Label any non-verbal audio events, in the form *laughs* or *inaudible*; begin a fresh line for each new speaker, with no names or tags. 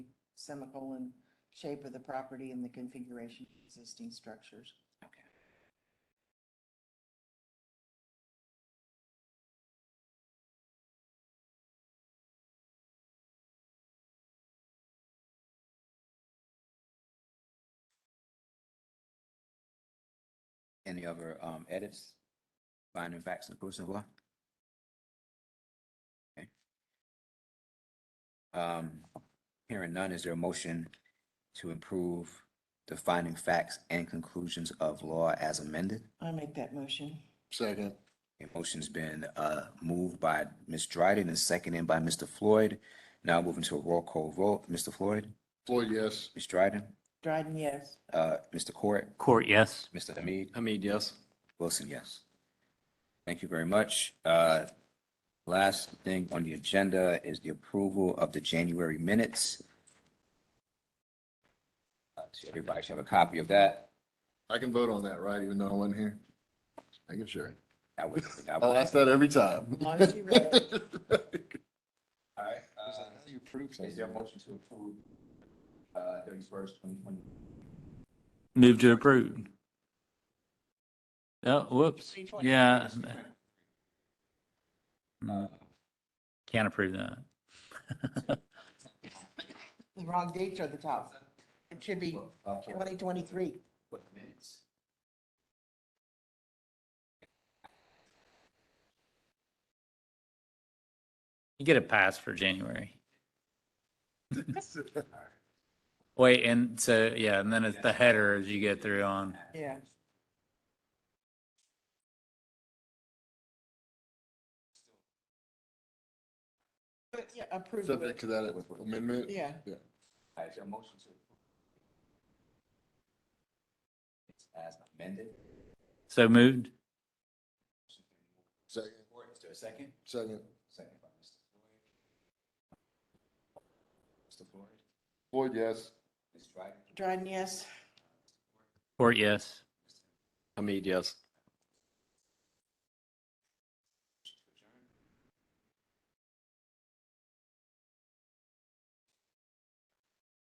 semicolon, shape of the property and the configuration of existing structures.
Okay. Any other um, edits, finding facts and proofs of law? Okay. Um, Hearing none, is there a motion to improve the finding facts and conclusions of law as amended?
I make that motion.
Second.
A motion's been uh, moved by Ms. Dryden and seconded by Mr. Floyd. Now moving to a roll call vote. Mr. Floyd,
Floyd, yes.
Ms. Dryden,
Dryden, yes.
uh, Mr. Court,
Court, yes.
Mr. Hamid.
Hamid, yes.
Wilson, yes. Thank you very much. Uh, Last thing on the agenda is the approval of the January minutes. Uh, so Everybody should have a copy of that.
I can vote on that, right? Even though I wasn't here. Making sure.
I would- I would-
I'll ask that every time.
Long *laughs* as you read
All right, uh, Is there a motion to approve uh, 31st, 2020?
Move to approve. Oh, whoops. Yeah. Mm, Can't approve that.
The wrong dates are the top. It should be
Okay.
twenty twenty-three.
What minutes?
You get a pass for January. Wait, and so, yeah, and then it's the header as you get through on.
Yeah. But yeah, approve
*laughs* Subject
it.
to that amendment.
Yeah.
All right, is there a motion to? approve? It's as amended.
So moved?
Second,
Is there a second?
second.
Second by Mr. Floyd. Mr. Floyd,
Floyd, yes.
Ms. Dryden,
Dryden, yes.
Court, yes.
Hamid, yes.